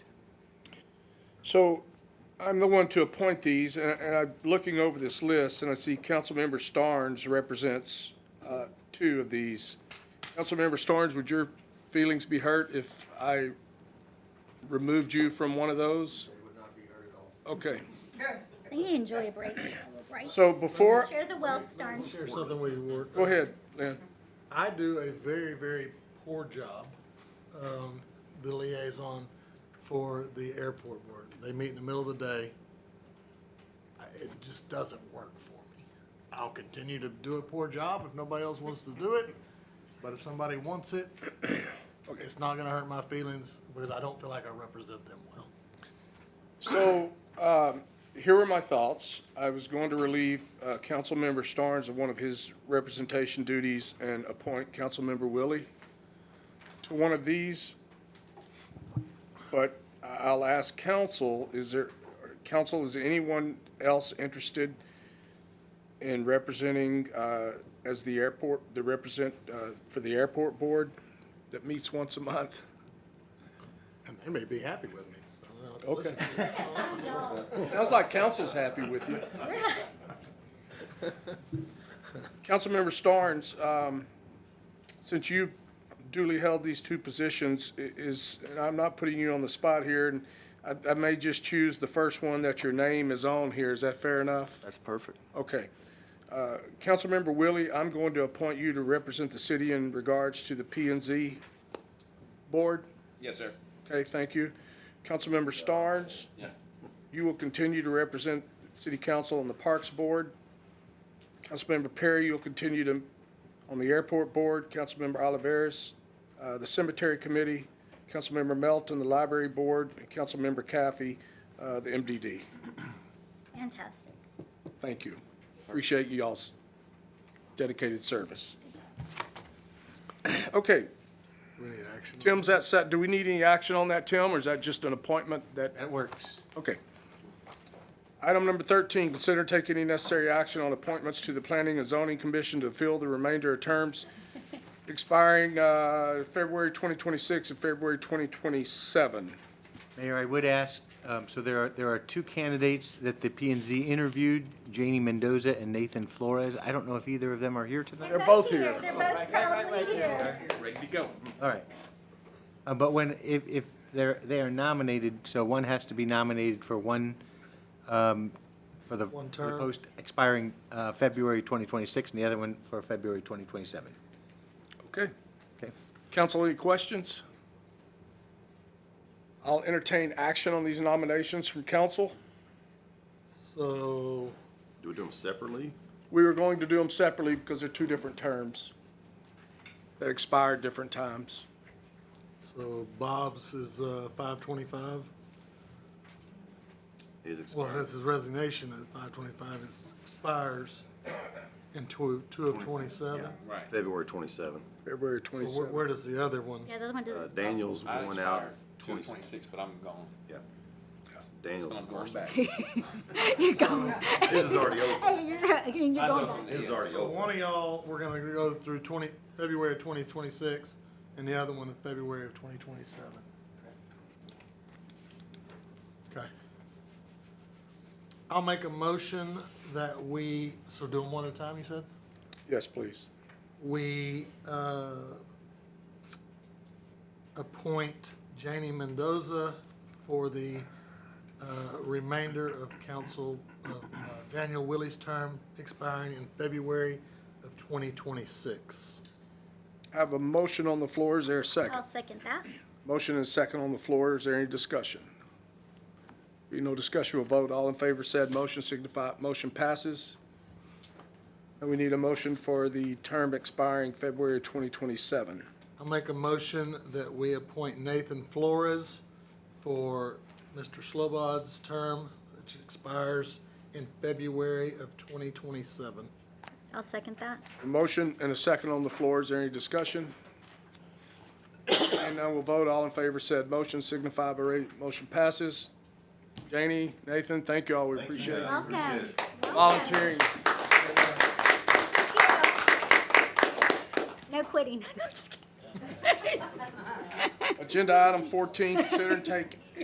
So I'm the one to appoint these, and and I'm looking over this list, and I see Councilmember Starnes represents uh, two of these. Councilmember Starnes, would your feelings be hurt if I removed you from one of those? They would not be hurt at all. Okay. They enjoy a break, right? So before, Share the wealth, Starnes. Share something we were. go ahead, Lynn. I do a very, very poor job, um, the liaison for the airport board. They meet in the middle of the day. I- It just doesn't work for me. I'll continue to do a poor job if nobody else wants to do it, but if somebody wants it, it's not gonna hurt my feelings because I don't feel like I represent them well. So, um, here were my thoughts. I was going to relieve, uh, Councilmember Starnes of one of his representation duties and appoint Councilmember Willie to one of these. But I- I'll ask council, is there, council, is anyone else interested in representing, uh, as the airport, the represent, uh, for the airport board that meets once a month? And they may be happy with me. I don't know. Okay. Listen, Sounds like council's happy with you. Councilmember Starnes, um, since you duly held these two positions, i- is, and I'm not putting you on the spot here, and I, I may just choose the first one that your name is on here, is that fair enough? That's perfect. Okay. Uh, Councilmember Willie, I'm going to appoint you to represent the city in regards to the P and Z board. Yes, sir. Okay, thank you. Councilmember Starnes? Yeah. You will continue to represent the City Council on the Parks Board. Councilmember Perry, you'll continue to, on the Airport Board. Councilmember Oliveris, uh, the Cemetery Committee. Councilmember Melton, the Library Board. And Councilmember Caffey, uh, the MDD. Fantastic. Thank you. Appreciate you all's dedicated service. Okay, We need action. Tim's that set. Do we need any action on that, Tim, or is that just an appointment that That works. Okay. Item number thirteen, consider taking any necessary action on appointments to the Planning and Zoning Commission to fill the remainder of terms expiring, uh, February twenty twenty-six and February twenty twenty-seven. Mayor, I would ask, um, so there are, there are two candidates that the P and Z interviewed, Janie Mendoza and Nathan Flores. I don't know if either of them are here tonight. They're both here. They're both proudly here. Ready to go. All right. Uh, But when, if, if they're, they are nominated, so one has to be nominated for one, um, for the One for the term. post expiring uh, February 2026, and the other one for February 2027. Okay. Okay? Council, any questions? I'll entertain action on these nominations from council. So, Do we do them separately? We were going to do them separately because they're two different terms that expire at different times. so Bob's is, uh, five twenty-five. Is Well, expired. that's his resignation at five twenty-five, it expires in two, two of twenty-seven. Right. February twenty-seven. February So where, twenty-seven. where does the other one? Yeah, the other one Uh, doesn't. Daniel's I going out expired two twenty-six. twenty-six, but I'm gone. Yeah. But Daniel's. I'm going back. You're going. This is already over. Hey, you're, you're going back. This is already So over. one of y'all, we're gonna go through twenty, February of twenty twenty-six, and the other one in February of twenty twenty-seven. Okay. I'll make a motion that we, so do them one at a time, you said? Yes, please. we uh, appoint Janie Mendoza for the uh, remainder of council, of uh, Daniel Willie's term expiring in February of 2026. I have a motion on the floor. Is there a I'll second? second that. Motion and second on the floor. Is there any discussion? Be no discussion, we'll vote. All in favor said motion signify, motion passes. And we need a motion for the term expiring February 2027. I'll make a motion that we appoint Nathan Flores for Mr. Slobod's term, which expires in February of 2027. I'll second that. A motion and a second on the floor. Is there any discussion? And now we'll vote. All in favor said motion signify by raising, motion passes. Janie, Nathan, thank you all. We appreciate you Welcome. Welcome. volunteering. No quitting. No, just kidding. Agenda item fourteen, consider and take